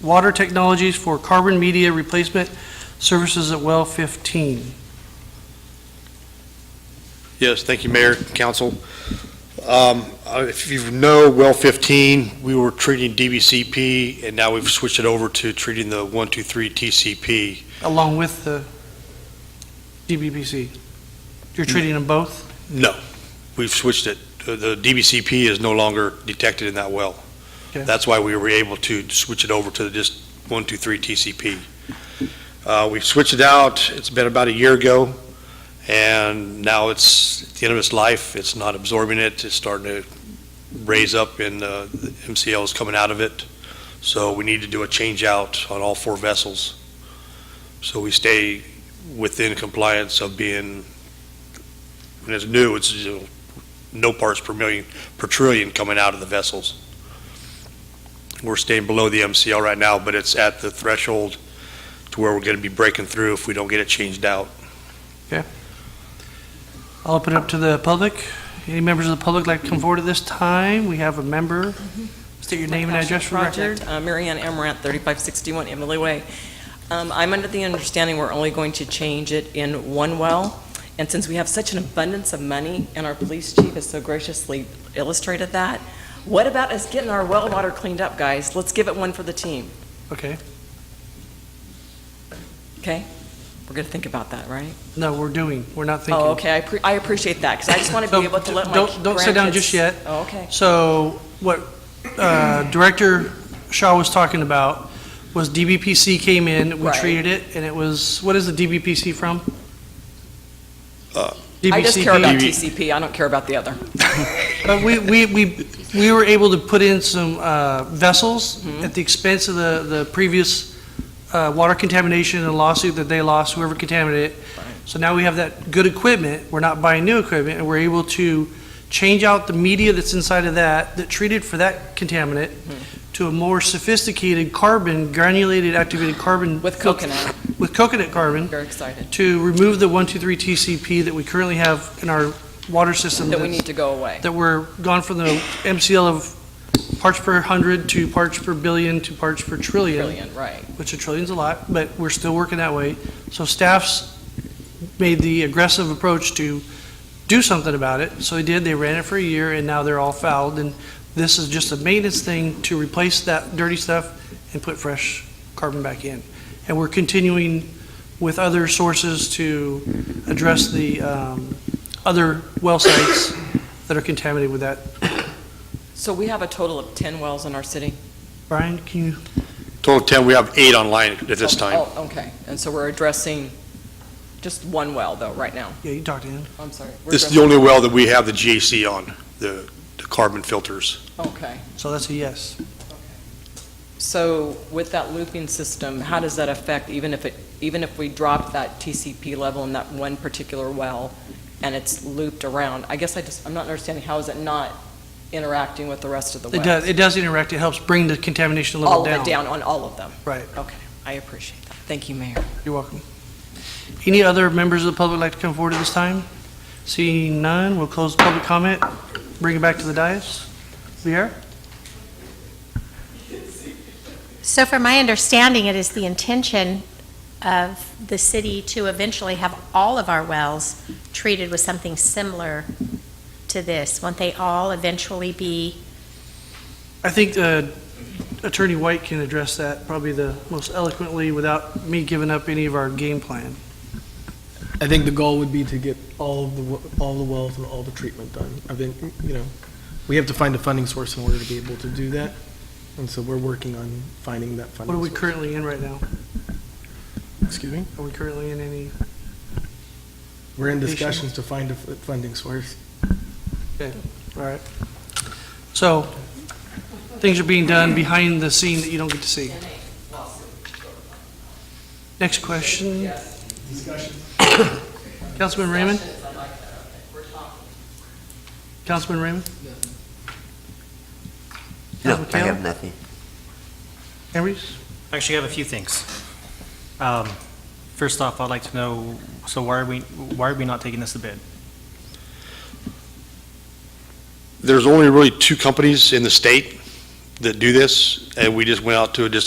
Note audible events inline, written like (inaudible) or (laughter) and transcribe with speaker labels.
Speaker 1: Water Technologies for Carbon Media Replacement Services at Well 15.
Speaker 2: Yes, thank you, Mayor, Council. Um, uh, If you know, well 15, we were treating DBCP, and now we've switched it over to treating the 123 TCP.
Speaker 1: along with the DBPC? You're treating them both?
Speaker 2: No, we've switched it. Uh, The DBCP is no longer detected in that well.
Speaker 1: Okay.
Speaker 2: That's why we were able to switch it over to just 123 TCP. Uh, We've switched it out, it's been about a year ago, and now it's at the end of its life, it's not absorbing it, it's starting to raise up and uh, the MCL is coming out of it. So we need to do a change out on all four vessels. So we stay within compliance of being, when it's new, it's, you know, no parts per million, per trillion coming out of the vessels. We're staying below the MCL right now, but it's at the threshold to where we're going to be breaking through if we don't get it changed (laughs) out.
Speaker 1: I'll open it up to the public. Any members of the public like to come forward at this time? We have a member.
Speaker 3: Mm-hmm.
Speaker 1: State your name and address for the record.
Speaker 3: Project, uh, Mary Ann Emmerant, 3561 Emily Way. Um, I'm under the understanding we're only going to change it in one well, and since we have such an abundance of money, and our police chief has so graciously illustrated that, what about us getting our well water cleaned up, guys? Let's give it one for the team,
Speaker 1: Okay.
Speaker 3: okay? We're going to think about that, right?
Speaker 1: No, we're doing, we're not thinking.
Speaker 3: Oh, okay, I pre- I appreciate that, because I just want to
Speaker 1: So,
Speaker 3: be able to let my
Speaker 1: don't- don't sit down
Speaker 3: grandkids-
Speaker 1: just yet.
Speaker 3: Oh, okay.
Speaker 1: So what uh, Director Shaw was talking about was DBPC came in, we
Speaker 3: Right.
Speaker 1: treated it, and it was, what is the DBPC from?
Speaker 2: Uh,
Speaker 3: I just care
Speaker 1: DBCP.
Speaker 3: about TCP, I don't care about the other.
Speaker 1: But we, we, we, we were able to put in some uh, vessels
Speaker 3: Mm-hmm.
Speaker 1: at the expense of the, the previous uh, water contamination and lawsuit that they lost, whoever contaminated it. So now we have that good equipment, we're not buying new equipment, and we're able to change out the media that's inside of that, that treated for that contaminant,
Speaker 3: Hmm.
Speaker 1: to a more sophisticated carbon, granulated activated carbon.
Speaker 3: With coconut,
Speaker 1: With coconut carbon,
Speaker 3: very excited,
Speaker 1: to remove the 123 TCP that we currently have in our water system.
Speaker 3: that we
Speaker 1: that's-
Speaker 3: need to go away.
Speaker 1: that we're gone from the MCL of parts per hundred to parts per billion to parts per trillion,
Speaker 3: Brilliant, right.
Speaker 1: which a trillion's a lot, but we're still working that way. So staff's made the aggressive approach to do something about it. So they did, they ran it for a year, and now they're all fouled, and this is just a maintenance thing to replace that dirty stuff and put fresh carbon back in. And we're continuing with other sources to address the, um, other well sites that are contaminated with that.
Speaker 3: So we have a total of 10 wells in our city?
Speaker 1: Brian, can you,
Speaker 2: Total 10, we have eight online at this time.
Speaker 3: Oh, okay. And so we're addressing just one well, though, right now?
Speaker 1: yeah, you can talk to him.
Speaker 3: I'm sorry. We're
Speaker 2: This is the only well that we have the GAC on, the the carbon filters.
Speaker 3: addressing- Okay.
Speaker 1: So that's a yes.
Speaker 3: So with that looping system, how does that affect, even if it, even if we drop that TCP level in that one particular well and it's looped around? I guess I just, I'm not understanding, how is it not interacting with the rest of the
Speaker 1: It
Speaker 3: wells?
Speaker 1: does, it does interact, it helps bring the contamination level
Speaker 3: All
Speaker 1: down.
Speaker 3: of it down on all of them?
Speaker 1: Right,
Speaker 3: Okay. I appreciate that. Thank you, Mayor.
Speaker 1: you're welcome. Any other members of the public like to come forward at this time? Seeing none, we'll close public comment, bring it back to the dais. Viera?
Speaker 4: So from my understanding, it is the intention of the city to eventually have all of our wells treated with something similar to this. Won't they all eventually be,
Speaker 1: I think uh, Attorney White can address that probably the most eloquently without me giving up any of our game plan.
Speaker 5: I think the goal would be to get all of the, w- all the wells and all the treatment done. I think, you know, we have to find a funding source in order to be able to do that. And so we're working on finding that funding
Speaker 1: What are we
Speaker 5: source.
Speaker 1: currently in right now?
Speaker 5: Excuse me?
Speaker 1: Are we currently in any?
Speaker 5: We're in
Speaker 1: Patient.
Speaker 5: discussions to find a f- funding source.
Speaker 1: All right. So, things are being done behind the scene that you don't get to see. Next question? Councilman Raymond? Councilman Raymond?
Speaker 6: No,
Speaker 1: Councilman
Speaker 6: I
Speaker 1: Taylor?
Speaker 6: have nothing.
Speaker 1: Henrys?
Speaker 7: Actually, I have a few things. Um, First off, I'd like to know, so why are we, why are we not taking this to bid?
Speaker 2: There's only really two companies in the state that do this, and we just went out to a just